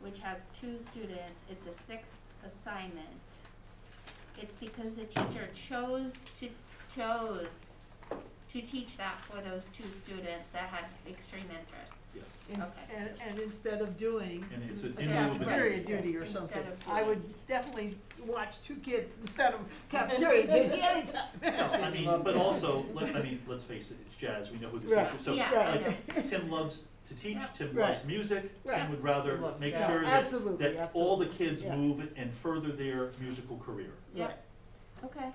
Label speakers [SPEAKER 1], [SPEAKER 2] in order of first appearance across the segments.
[SPEAKER 1] which has two students, it's a sixth assignment. It's because the teacher chose to, chose to teach that for those two students that had extreme interests.
[SPEAKER 2] Yes.
[SPEAKER 3] Ins-
[SPEAKER 1] Okay.
[SPEAKER 3] And, and instead of doing
[SPEAKER 2] And it's a-
[SPEAKER 3] a
[SPEAKER 2] in
[SPEAKER 1] lieu of a-
[SPEAKER 3] cafeteria duty or
[SPEAKER 1] Instead
[SPEAKER 3] something,
[SPEAKER 1] of
[SPEAKER 3] I would definitely watch two kids instead of cafeteria duty anytime.
[SPEAKER 2] No, I mean, but also, let, I mean, let's face it, it's jazz, we know who the
[SPEAKER 3] Right.
[SPEAKER 2] teacher, so,
[SPEAKER 1] Yeah,
[SPEAKER 3] I
[SPEAKER 2] like, Tim loves to teach,
[SPEAKER 1] Yep.
[SPEAKER 2] Tim
[SPEAKER 3] Right.
[SPEAKER 2] loves music, Tim
[SPEAKER 3] Right.
[SPEAKER 2] would rather
[SPEAKER 4] Loves
[SPEAKER 2] make
[SPEAKER 4] jazz.
[SPEAKER 2] sure that,
[SPEAKER 3] Absolutely,
[SPEAKER 2] that all the
[SPEAKER 3] absolutely.
[SPEAKER 2] kids
[SPEAKER 3] Yeah.
[SPEAKER 2] move and further their musical career.
[SPEAKER 1] Yep, okay,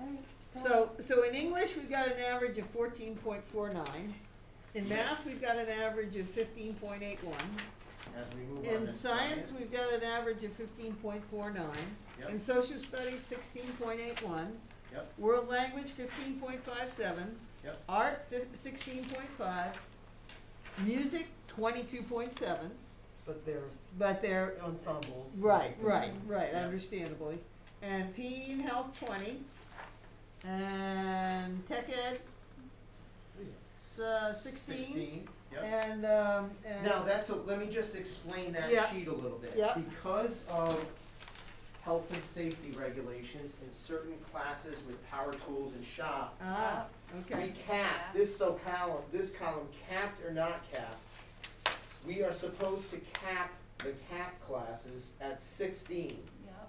[SPEAKER 1] alright.
[SPEAKER 3] So, so in English, we've got an average of fourteen point four nine. In math, we've got an average of fifteen point eight one.
[SPEAKER 4] As we move on
[SPEAKER 3] In
[SPEAKER 4] to
[SPEAKER 3] science, we've got an average of fifteen point four nine. In
[SPEAKER 4] Yep,
[SPEAKER 3] social studies, sixteen point eight one.
[SPEAKER 4] Yep.
[SPEAKER 3] World language, fifteen point five seven.
[SPEAKER 4] Yep.
[SPEAKER 3] Art, sixteen point five. Music, twenty-two point seven,
[SPEAKER 5] But they're
[SPEAKER 3] but they're,
[SPEAKER 5] ensembles.
[SPEAKER 3] right, right, right,
[SPEAKER 4] Yep.
[SPEAKER 3] understandably. And PE and health, twenty. And tech ed, s- uh, sixteen.
[SPEAKER 4] sixteen, yep.
[SPEAKER 3] And, um, and.
[SPEAKER 4] Now, that's, a- let me just explain that
[SPEAKER 3] Yeah.
[SPEAKER 4] sheet a little bit.
[SPEAKER 3] Yeah.
[SPEAKER 4] Because of health and safety regulations in certain classes with power tools and shop,
[SPEAKER 3] Ah,
[SPEAKER 4] we
[SPEAKER 3] okay,
[SPEAKER 4] cap, this so column, this column capped or not capped, we are supposed to cap the cap classes at sixteen.
[SPEAKER 1] Yep,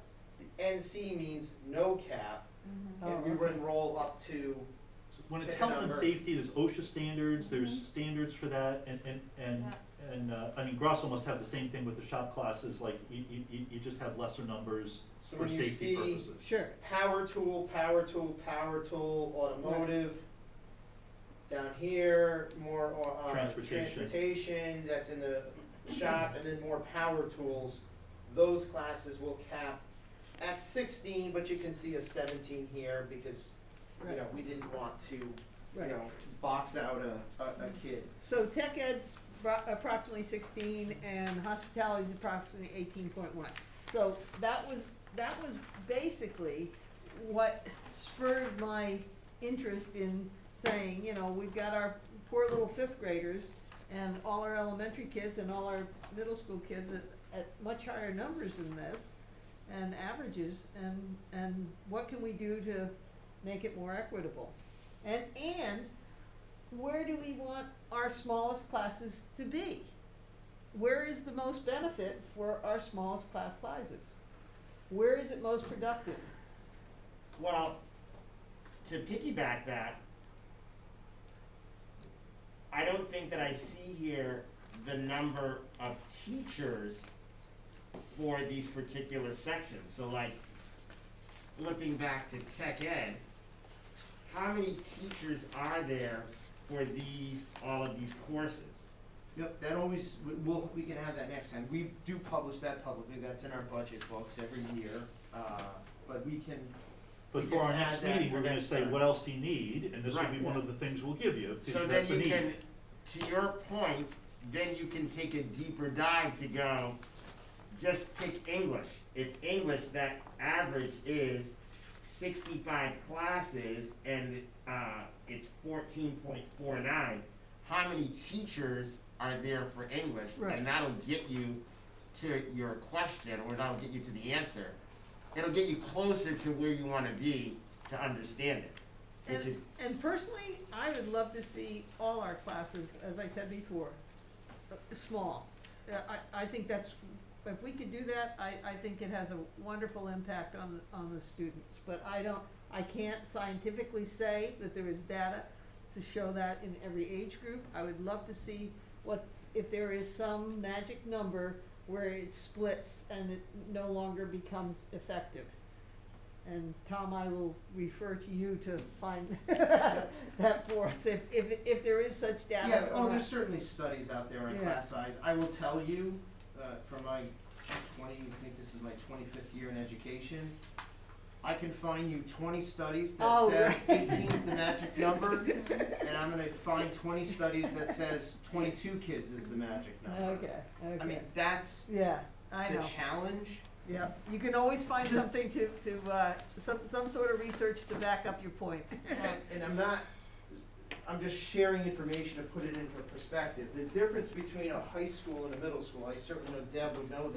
[SPEAKER 4] The NC means no cap,
[SPEAKER 1] mhm,
[SPEAKER 3] Oh,
[SPEAKER 4] and we would
[SPEAKER 3] okay.
[SPEAKER 4] roll up to,
[SPEAKER 2] So When it's
[SPEAKER 4] Pick a
[SPEAKER 2] health and
[SPEAKER 4] number.
[SPEAKER 2] safety, there's OSHA standards,
[SPEAKER 1] Mhm.
[SPEAKER 2] there's
[SPEAKER 3] Mm-hmm.
[SPEAKER 2] standards for that, and, and, and, and, uh, I mean, Grosso must have the same thing with the shop classes, like, you, you, you- you just have lesser numbers
[SPEAKER 4] So
[SPEAKER 2] for
[SPEAKER 4] when you
[SPEAKER 2] safety
[SPEAKER 4] see-
[SPEAKER 2] purposes.
[SPEAKER 3] sure.
[SPEAKER 4] power tool, power tool, power tool, automotive. Down here, more, uh, uh,
[SPEAKER 2] Transportation.
[SPEAKER 4] transportation, that's in the shop, and then more power tools. Those classes will cap at sixteen, but you can see a seventeen here because, you
[SPEAKER 3] Right.
[SPEAKER 4] know, we didn't want to, you
[SPEAKER 3] Right.
[SPEAKER 4] know, box out a, a, a kid.
[SPEAKER 3] So tech ed's bro- approximately sixteen and hospitality's approximately eighteen point one. So that was, that was basically what spurred my interest in saying, you know, we've got our poor little fifth graders and all our elementary kids and all our middle school kids at, at much higher numbers than this and averages and, and what can we do to make it more equitable? And, and where do we want our smallest classes to be? Where is the most benefit for our smallest class sizes? Where is it most productive?
[SPEAKER 6] Well, to piggyback that, I don't think that I see here the number of teachers for these particular sections. So like, looking back to tech ed, how many teachers are there for these, all of these courses?
[SPEAKER 4] Yep, that always, we- we'll, we can have that next time. We do publish that publicly, that's in our budget books every year, uh, but we can,
[SPEAKER 2] But
[SPEAKER 4] We
[SPEAKER 2] for
[SPEAKER 4] can
[SPEAKER 2] our
[SPEAKER 4] add
[SPEAKER 2] next
[SPEAKER 4] that
[SPEAKER 2] meeting,
[SPEAKER 4] for
[SPEAKER 2] we're gonna
[SPEAKER 4] next
[SPEAKER 2] say,
[SPEAKER 4] time.
[SPEAKER 2] what else do you need, and this will be
[SPEAKER 6] Right.
[SPEAKER 2] one of the things we'll give you,
[SPEAKER 6] So
[SPEAKER 2] because
[SPEAKER 6] then
[SPEAKER 2] that's a
[SPEAKER 6] you
[SPEAKER 2] need.
[SPEAKER 6] can, to your point, then you can take a deeper dive to go, just pick English. If English, that average is sixty-five classes and, uh, it's fourteen point four nine, how many teachers are there for English?
[SPEAKER 3] Right.
[SPEAKER 6] And that'll get you to your question, or that'll get you to the answer. It'll get you closer to where you wanna be to understand it, which
[SPEAKER 3] And,
[SPEAKER 6] is,
[SPEAKER 3] and personally, I would love to see all our classes, as I said before, uh, small. Uh, I, I think that's, if we could do that, I, I think it has a wonderful impact on, the- on the students. But I don't, I can't scientifically say that there is data to show that in every age group. I would love to see what, if there is some magic number where it splits and it no longer becomes effective. And Tom, I will refer to you to find that for us, if, if, if there is such data.
[SPEAKER 4] Yeah,
[SPEAKER 3] or
[SPEAKER 4] oh,
[SPEAKER 3] not.
[SPEAKER 4] there's certainly studies out there on
[SPEAKER 3] Yeah.
[SPEAKER 4] class size. I will tell you, uh, from my twenty, I think this is my twenty-fifth year in education, I can find you twenty studies that
[SPEAKER 3] Oh,
[SPEAKER 4] says
[SPEAKER 3] right.
[SPEAKER 4] eighteen's the magic number, and I'm gonna find twenty studies that says twenty-two kids is the magic number.
[SPEAKER 3] Okay, okay.
[SPEAKER 4] I mean, that's
[SPEAKER 3] Yeah, I
[SPEAKER 4] the
[SPEAKER 3] know,
[SPEAKER 4] challenge.
[SPEAKER 3] yeah, you can always find something to, to, uh, some, some sort of research to back up your point.
[SPEAKER 4] And, and I'm not, I'm just sharing information to put it into perspective. The difference between a high school and a middle school, I certainly know Deb would know